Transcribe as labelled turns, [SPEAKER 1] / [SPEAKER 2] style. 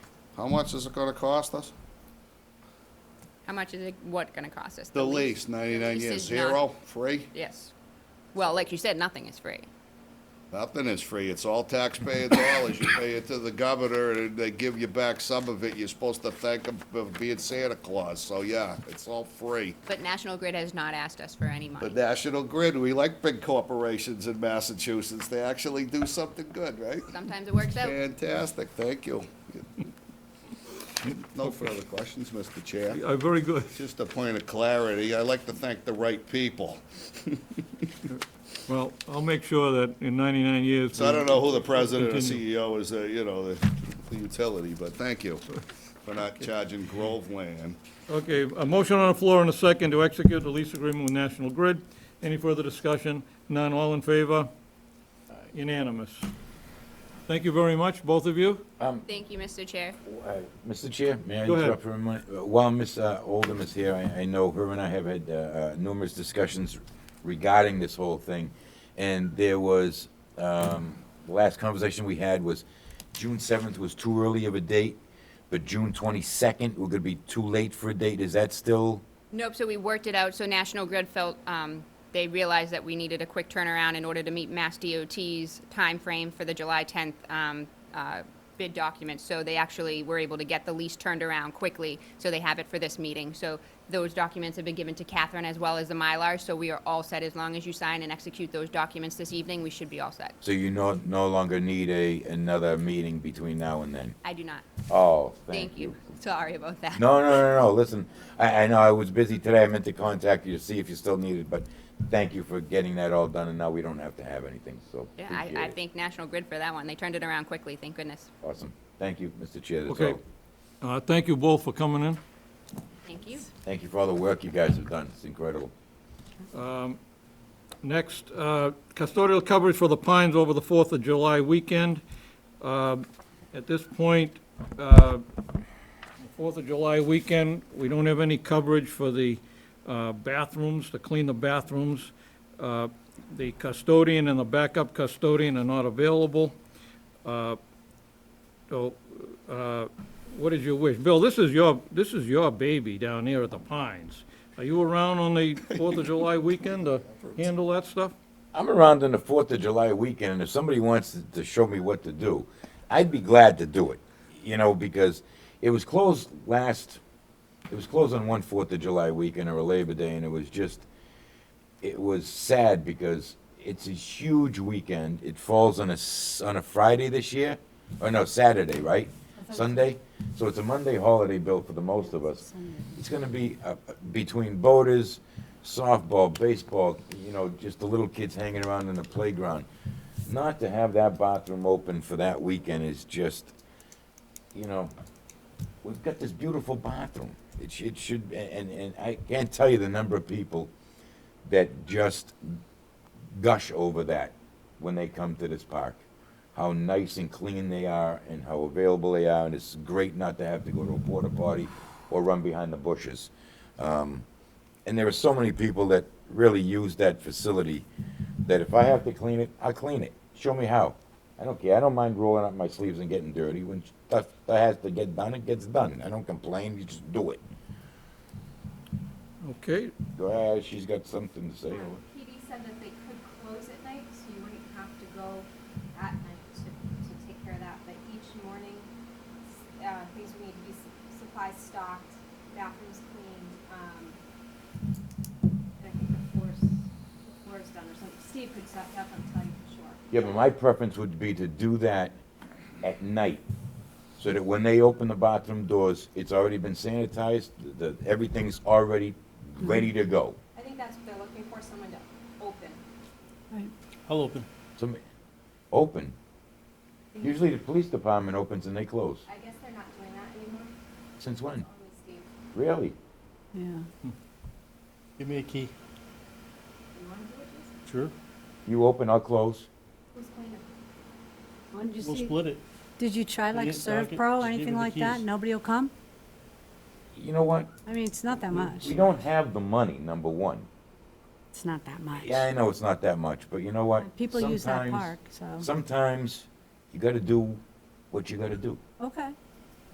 [SPEAKER 1] How much is it gonna cost us?
[SPEAKER 2] How much is it, what gonna cost us?
[SPEAKER 1] The lease, ninety-nine
[SPEAKER 2] lease
[SPEAKER 1] years,
[SPEAKER 2] is not-
[SPEAKER 1] zero, free?
[SPEAKER 2] Yes. Well, like you said, nothing is free.
[SPEAKER 1] Nothing is free. It's all taxpayer dollars. You pay it to the governor, and they give you back some of it. You're supposed to thank them for being Santa Claus. So yeah, it's all free.
[SPEAKER 2] But National Grid has not asked us for any money.
[SPEAKER 1] But National Grid, we like big corporations in Massachusetts. They actually do something good, right?
[SPEAKER 2] Sometimes it works out.
[SPEAKER 1] Fantastic. Thank you. No further questions, Mr. Chair.
[SPEAKER 3] Uh, Very good.
[SPEAKER 1] Just a point of clarity. I like to thank the right people.
[SPEAKER 3] Well, I'll make sure that in 99 years.
[SPEAKER 1] So I don't know who the
[SPEAKER 3] we
[SPEAKER 1] president or
[SPEAKER 3] continue.
[SPEAKER 1] CEO is, uh, you know, the the utility, but thank you for not charging Groveland.
[SPEAKER 3] Okay, a motion on the floor and a second to execute the lease agreement with National Grid. Any further discussion? None, all in favor? Unanimous. Thank you very much, both of you.
[SPEAKER 2] Thank you, Mr. Chair.
[SPEAKER 4] Uh, Mr. Chair, may I
[SPEAKER 3] Go ahead.
[SPEAKER 4] interrupt for a minute? Uh, While Ms. uh, Oldham is here, I, I know her and I have had uh, uh, numerous discussions regarding this whole thing. And there was, um, the last conversation we had was June seventh was too early of a date, but June twenty-second, we're gonna be too late for a date. Is that still?
[SPEAKER 2] Nope, so we worked it out, so National Grid felt, um, they realized that we needed a quick turnaround in order to meet Mass DOT's timeframe for the July tenth, um, uh, bid document, so they actually were able to get the lease turned around quickly, so they have it for this meeting. So those documents have been given to Catherine as well as the Mylar, so we are all set. As long as you sign and execute those documents this evening, we should be all set.
[SPEAKER 4] So you no, no longer need a, another meeting between now and then?
[SPEAKER 2] I do not.
[SPEAKER 4] Oh,
[SPEAKER 2] Thank you. Sorry about that.
[SPEAKER 4] No, no, no, no, listen, I, I know I was busy today, I meant to contact you to see if you still needed, but thank you for getting that all done, and now we don't have to have anything, so
[SPEAKER 2] Yeah, I, I
[SPEAKER 4] appreciate it.
[SPEAKER 2] thank National Grid for that one. They turned it around quickly, thank goodness.
[SPEAKER 4] Awesome, thank you, Mr. Chair, that's
[SPEAKER 3] Okay.
[SPEAKER 4] all.
[SPEAKER 3] Uh, Thank you both for coming in.
[SPEAKER 2] Thank you.
[SPEAKER 4] Thank you for all the work you guys have done, it's incredible.
[SPEAKER 3] Next, uh, custodial coverage for the Pines over the 4th of July weekend. Um, At this point, uh, the 4th of July weekend, we don't have any coverage for the uh, bathrooms, to clean the bathrooms. Uh, The custodian and the backup custodian are not available. Uh, So uh, what is your wish? Bill, this is your, this is your baby down here at the Pines. Are you around on the Fourth of July weekend to handle that stuff?
[SPEAKER 4] I'm around on the Fourth of July weekend, and if somebody wants to, to show me what to do, I'd be glad to do it. You know, because it was closed last, it was closed on one Fourth of July weekend or a Labor Day, and it was just, it was sad because it's a huge weekend. It falls on a s- on a Friday this year, or no Saturday, right? Sunday, so it's a Monday holiday bill for the most of us. It's going to be uh, between boaters, softball, baseball, you know, just the little kids hanging around in the playground. Not to have that bathroom open for that weekend is just, you know, we've got this beautiful bathroom. It should, it should, and, and I can't tell you the number of people that just gush over that when they come to this park. How nice and clean they are and how available they are, and it's great not to have to go to a porta potty or run behind the bushes. Um, and there are so many people that really use that facility that if I have to clean it, I'll clean it. Show me how. I don't care. I don't mind rolling up my sleeves and getting dirty. When stuff that has to get done, it gets done. I don't complain. You just do it.
[SPEAKER 3] Okay,
[SPEAKER 4] Go, ah, she's got something to say.
[SPEAKER 5] Um, PD said that they could close at night, so you wouldn't have to go at night to, to take care of that, but each morning, s- uh, things would need to be su- supplies stocked, bathrooms cleaned, um, and I think the floors, the floor's done or something. Steve could step up and tell you for sure.
[SPEAKER 4] Yeah, but my preference would be to do that at night, so that when they open the bathroom doors, it's already been sanitized, the, everything's already ready to go.
[SPEAKER 5] I think that's what they're looking for, someone to open.
[SPEAKER 3] I'll open.
[SPEAKER 4] Some, open. Usually the police department opens and they close.
[SPEAKER 5] I guess they're not doing that anymore,
[SPEAKER 4] Since when?
[SPEAKER 5] only Steve.
[SPEAKER 4] Really?
[SPEAKER 6] Yeah.
[SPEAKER 7] Give me a key.
[SPEAKER 5] You wanna do it, Jason?
[SPEAKER 7] Sure.
[SPEAKER 4] You open, I'll close.
[SPEAKER 5] Who's cleaning?
[SPEAKER 6] Why did you
[SPEAKER 7] We'll
[SPEAKER 6] see-
[SPEAKER 7] split it.
[SPEAKER 6] Did you try
[SPEAKER 7] You
[SPEAKER 6] like
[SPEAKER 7] get
[SPEAKER 6] Serve
[SPEAKER 7] docket,
[SPEAKER 6] Pro,
[SPEAKER 7] just give her
[SPEAKER 6] anything
[SPEAKER 7] the
[SPEAKER 6] like that?
[SPEAKER 7] keys.
[SPEAKER 6] Nobody will come?
[SPEAKER 4] You know what?
[SPEAKER 6] I mean, it's not that much.
[SPEAKER 4] We don't have the money, number one.
[SPEAKER 6] It's not that much.
[SPEAKER 4] Yeah, I know it's not that much, but you know what?
[SPEAKER 6] People use that
[SPEAKER 4] Sometimes-
[SPEAKER 6] park, so,
[SPEAKER 4] Sometimes you gotta do what you gotta do.
[SPEAKER 6] okay.